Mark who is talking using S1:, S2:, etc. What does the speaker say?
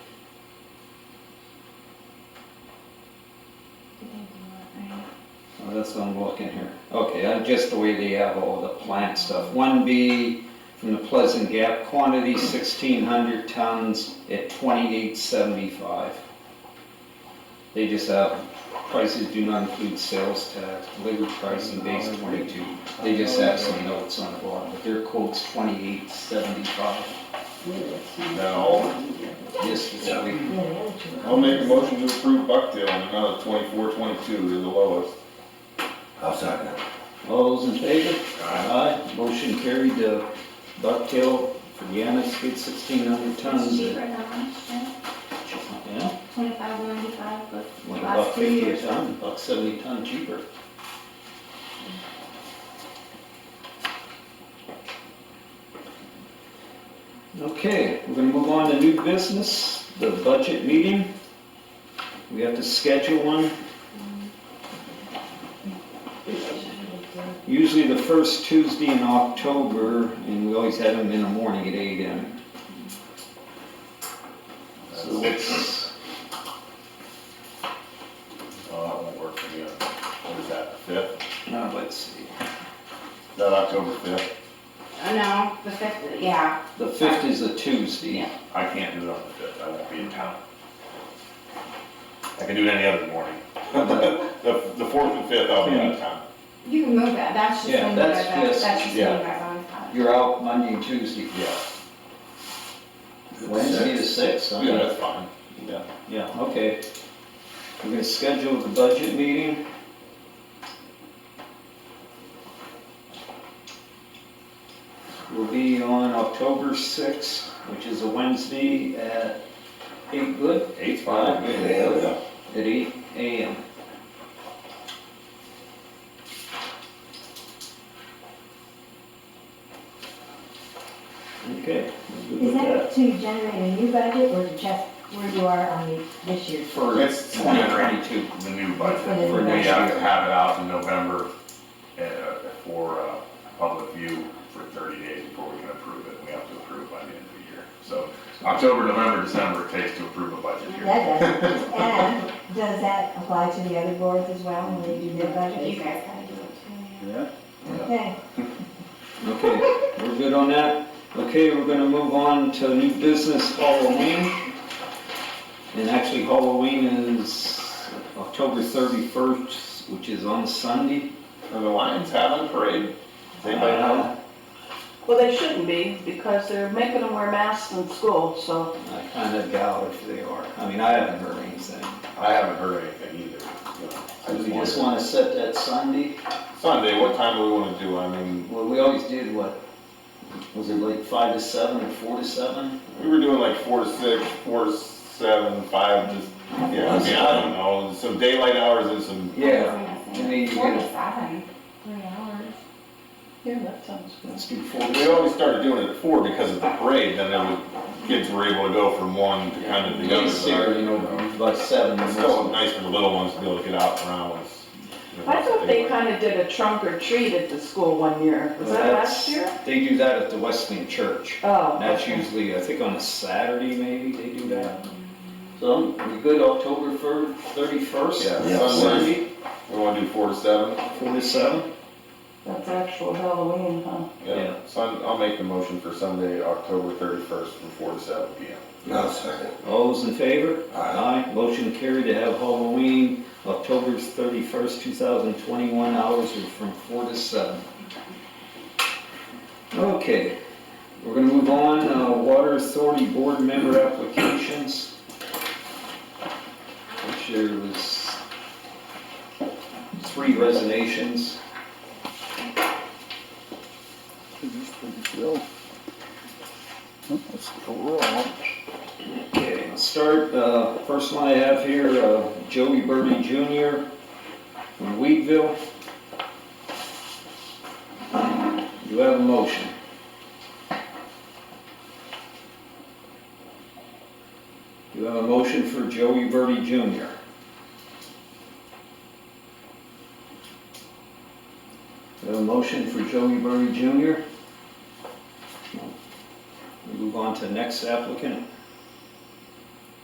S1: this one looking here. Okay, I'm just the way they have all the plant stuff. One B from the Pleasant Gap, quantity sixteen hundred tons at twenty-eight seventy-five. They just have, prices do not include sales tax, labor pricing base twenty-two. They just have some notes on the bottom, but their quote's twenty-eight seventy-five.
S2: Now,
S1: Yes, it's a week.
S2: I'll make a motion to approve Bucktail in another twenty-four, twenty-two, they're the lowest.
S3: I'll second it.
S1: All those in favor? Aye. Motion carried to Bucktail for Deanna's bid sixteen hundred
S4: It's
S1: tons.
S4: cheaper
S1: at-
S4: now, yeah,
S1: Yeah,
S4: twenty-five, ninety-five, but
S1: one
S4: the last
S1: buck
S4: two
S1: fifty a
S4: years.
S1: ton, buck seventy a ton cheaper. Okay, we're gonna move on to new business, the budget meeting. We have to schedule one. Usually the first Tuesday in October, and we always have them in the morning at eight AM. So what's,
S2: Oh, that won't work for you. What is that, the fifth?
S1: now let's see,
S2: Is that October fifth?
S5: Uh, No, the fifth, yeah,
S1: the fifth is a Tuesday.
S2: I can't do it on the fifth, I won't be in town. I can do it any other morning. The, the fourth and fifth, I'll be out of town.
S5: you can move that, that's just.
S1: Yeah,
S5: when you
S1: that's
S5: go back-
S1: just-
S5: That's just
S2: yeah.
S5: when you guys on top.
S1: You're out Monday and Tuesday.
S2: Yeah,
S1: Wednesday the sixth,
S2: yeah, that's fine. Yeah.
S1: Yeah, okay. We're gonna schedule the budget meeting. Will be on October sixth, which is a Wednesday at eight, good?
S2: Eight's
S1: fine.
S3: Hell, yeah.
S1: At eight AM. Okay. we're good with
S6: Is that to generate a new budget or to check where you are on the, this year's?
S1: For
S2: It's
S1: twenty twenty-two.
S2: The new budget,
S6: For the new
S2: we
S1: budget.
S2: have to have it out in November uh, for uh, public view for 30 days before we can approve it. We have to approve by the end of the year. So October, November, December it takes to approve a budget here.
S6: That does, and does that apply to the other boards as well when they do their
S5: You
S6: budgets?
S5: guys gotta do
S1: Yeah.
S5: it
S6: Okay,
S1: Okay, we're good on that. Okay, we're gonna move on to new business Halloween. And actually Halloween is October thirty-first, which is on Sunday.
S2: And the Lions having a parade. They might
S1: Uh,
S2: have,
S7: Well, they shouldn't be, because they're making them wear masks in school, so
S1: I kinda doubt if they are. I mean, I haven't heard anything.
S2: I haven't heard anything either. you know. I
S1: We
S2: just
S1: just
S2: wondered.
S1: wanna set that Sunday.
S2: Sunday, what time do we want to do? I mean,
S1: Well, we always did what? Was it like five to seven or four to seven?
S2: we were doing like four to six, four to seven, five, just, yeah, I mean, I don't know. Some daylight hours and some,
S1: Yeah. I mean, you get-
S5: Forty-seven, three hours.
S7: yeah, that sounds good.
S1: Let's do four.
S2: we always started doing it at four because of the parade. Then there was, kids were able to go from one to kind of the other.
S1: Least here, you know, by seven.
S2: It's still nice for the little ones to be able to get out and around with. you know,
S7: I thought they
S2: anyway.
S7: kind of did a trunk or treat at the school one year, was that last year?
S1: They do that at the Wesleyan Church.
S7: Oh.
S1: And That's
S7: okay.
S1: usually, I think on a Saturday maybe they do that. So, we good October fir- thirty-first?
S2: Yeah,
S3: Yeah.
S2: Sunday,
S1: Sunday,
S2: we wanna do four to seven?
S1: four to seven?
S7: That's actual Halloween, huh?
S1: Yeah.
S2: Sun, I'll make the motion for Sunday, October thirty-first, from four to seven P M.
S3: I'll second it.
S1: All those in favor?
S3: Aye.
S1: Motion carried to have Halloween, October thirty-first, two thousand twenty-one, hours are from four to seven. Okay, we're gonna move on, uh, Water Authority Board Member Applications. Which there was three resignations. Okay, I'll start, uh, first one I have here, uh, Joey Birdie Jr. from Wheatville. You have a motion. You have a motion for Joey Birdie Jr. You have a motion for Joey Birdie Jr. We Move on to next applicant.